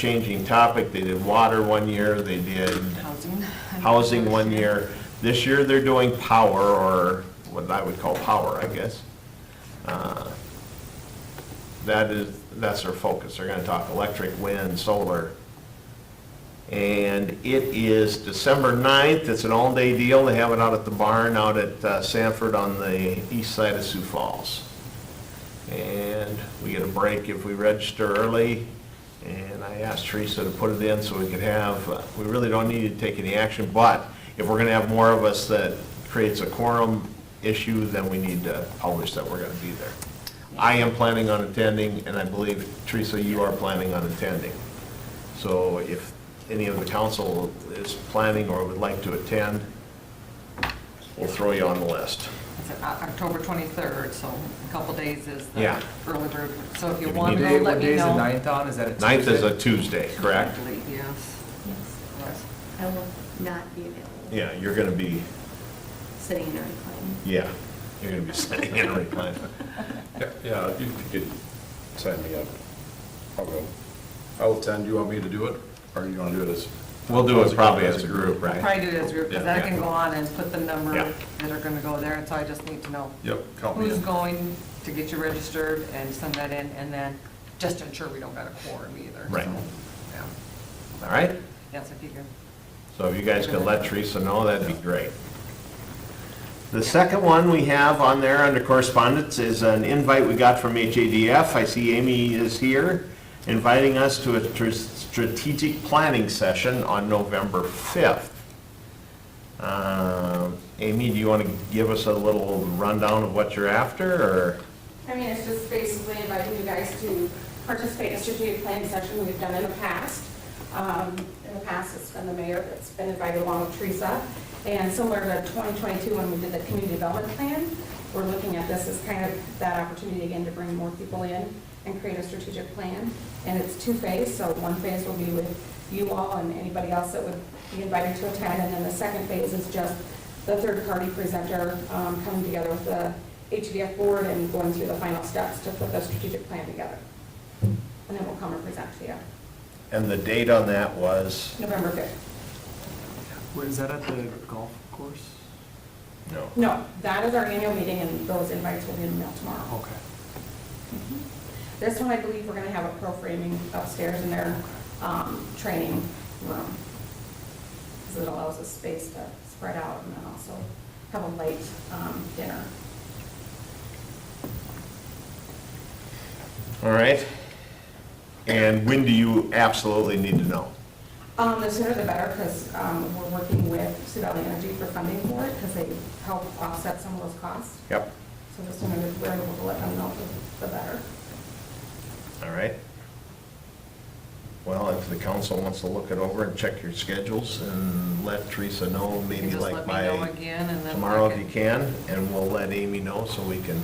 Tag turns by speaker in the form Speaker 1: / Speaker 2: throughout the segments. Speaker 1: changing topic. They did water one year, they did
Speaker 2: Housing.
Speaker 1: housing one year. This year, they're doing power, or what I would call power, I guess. Uh, That is, that's their focus. They're gonna talk electric, wind, solar. And it is December 9th. It's an all-day deal. They have it out at the barn out at uh, Sanford on the east side of Sioux Falls. And we get a break if we register early. And I asked Teresa to put it in so we could have, uh, we really don't need to take any action, but if we're gonna have more of us that creates a quorum issue, then we need to publish that we're gonna be there. I am planning on attending, and I believe, Teresa, you are planning on attending. So if any of the council is planning or would like to attend, we'll throw you on the list.
Speaker 2: It's O- October 23rd, so a couple days is the
Speaker 1: Yeah.
Speaker 2: early bird. So if you
Speaker 1: If you
Speaker 2: want
Speaker 1: need it.
Speaker 2: to, go,
Speaker 3: Day,
Speaker 2: let
Speaker 3: what day
Speaker 2: me
Speaker 3: is the
Speaker 2: know.
Speaker 3: ninth on, is that a Tuesday?
Speaker 1: Ninth is a Tuesday, correct?
Speaker 2: I believe, Yes.
Speaker 4: Yes,
Speaker 2: Yes.
Speaker 4: I will not be available.
Speaker 1: Yeah, you're gonna be,
Speaker 4: Sitting in a recline.
Speaker 1: yeah, you're gonna be sitting in a recline.
Speaker 5: Yeah, Yeah, if you could sign me up. I'll go. I'll attend. You want me to do it? Or you want to do it as?
Speaker 1: We'll do it probably as a group,
Speaker 2: I'll
Speaker 1: right?
Speaker 2: Probably do it as a group, because
Speaker 1: Yeah,
Speaker 2: I
Speaker 1: yeah.
Speaker 2: can go on and put the number
Speaker 1: Yeah.
Speaker 2: that are going to go there, and so I just need to know
Speaker 5: Yep, count me
Speaker 2: who's
Speaker 5: in.
Speaker 2: going to get you registered and send that in, and then just ensure we don't got a quorum either.
Speaker 1: Right.
Speaker 2: so, yeah.
Speaker 1: All right?
Speaker 2: Yes, if you can.
Speaker 1: So if you guys could let Teresa know, that'd be great. The second one we have on there under correspondence is an invite we got from HADF. I see Amy is here, inviting us to a tr- strategic planning session on November 5th. Um, Amy, do you want to give us a little rundown of what you're after, or?
Speaker 6: I mean, it's just basically inviting you guys to participate in a strategic planning session we've done in the past. Um, In the past, it's been the mayor that's been invited along with Teresa. And similar to 2022, when we did the community development plan, we're looking at this as kind of that opportunity again to bring more people in and create a strategic plan. And it's two-phased, so one phase will be with you all and anybody else that would be invited to attend. And then the second phase is just the third-party presenter um, coming together with the HDF board and going through the final steps to put the strategic plan together. And then we'll come and present to you,
Speaker 1: And the date on that was?
Speaker 6: November 5th.
Speaker 3: Where is that at the golf course?
Speaker 1: No.
Speaker 6: No, that is our annual meeting, and those invites will be in the mail tomorrow. Mm-hmm.
Speaker 3: Okay.
Speaker 6: This one, I believe, we're going to have a pro framing upstairs in their um, training room. Because it allows us space to spread out and then also have a late um, dinner.
Speaker 1: All right. And when do you absolutely need to know?
Speaker 6: Um, the sooner the better, because, um, we're working with Sioux Valley Energy for funding for it, because they help offset some of those costs.
Speaker 1: Yep.
Speaker 6: So the sooner we're able to let them know, the the better.
Speaker 1: All right. Well, if the council wants to look it over and check your schedules and let Teresa know,
Speaker 2: You
Speaker 1: maybe
Speaker 2: can just
Speaker 1: like
Speaker 2: let me know
Speaker 1: by
Speaker 2: again, and then I
Speaker 1: tomorrow if you can, and we'll let Amy know so we can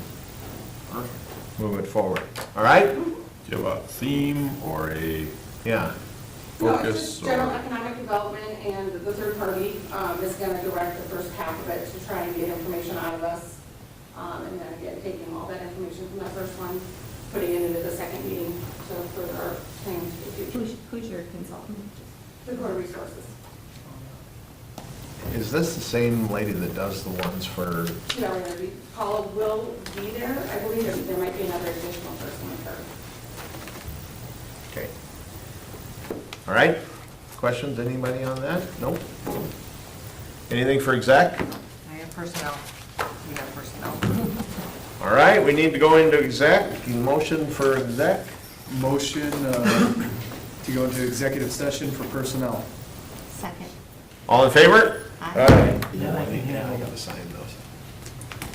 Speaker 1: move it forward. All right?
Speaker 5: Do you have a theme or a?
Speaker 1: Yeah.
Speaker 6: No, it's just
Speaker 5: Focus or-
Speaker 6: general economic development, and the third party, um, is gonna direct the first half of it to try and get information out of us. Um, and then again, taking all that information from that first one, putting it into the second meeting to further our plans for the
Speaker 4: Who's,
Speaker 6: future.
Speaker 4: who's your consultant?
Speaker 6: The core resources,
Speaker 1: Is this the same lady that does the ones for,
Speaker 6: Sioux Valley Energy, Paula will be there, I believe, there- there might be another additional person with her.
Speaker 1: okay. All right? Questions, anybody on that? Nope. Anything for exec?
Speaker 2: I have personnel. We have personnel.
Speaker 1: All right, we need to go into exec. Motion for exec?
Speaker 3: Motion uh, to go into executive session for personnel.
Speaker 4: Second.
Speaker 1: All in favor?
Speaker 4: Aye.
Speaker 1: Yeah, I think- yeah, I gotta sign those.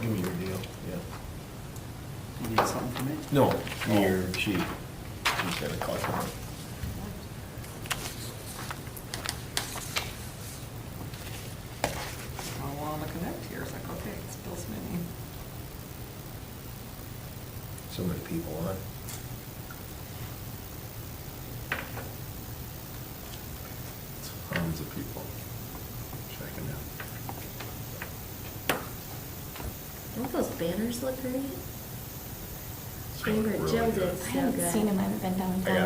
Speaker 1: Give me your deal, yeah.
Speaker 3: You need something from me? Oh.
Speaker 1: No, your sheet. She's gonna collect them.
Speaker 2: I want to connect here. It's like, okay, it's Bill Smitty.
Speaker 1: So many people on.
Speaker 5: Tons of people checking out.
Speaker 4: Don't those banners look great?
Speaker 5: It's
Speaker 4: Remember
Speaker 5: really
Speaker 4: Jill
Speaker 5: good.
Speaker 4: did so
Speaker 7: I
Speaker 4: good.
Speaker 7: haven't seen him, I haven't been downtown.
Speaker 1: I got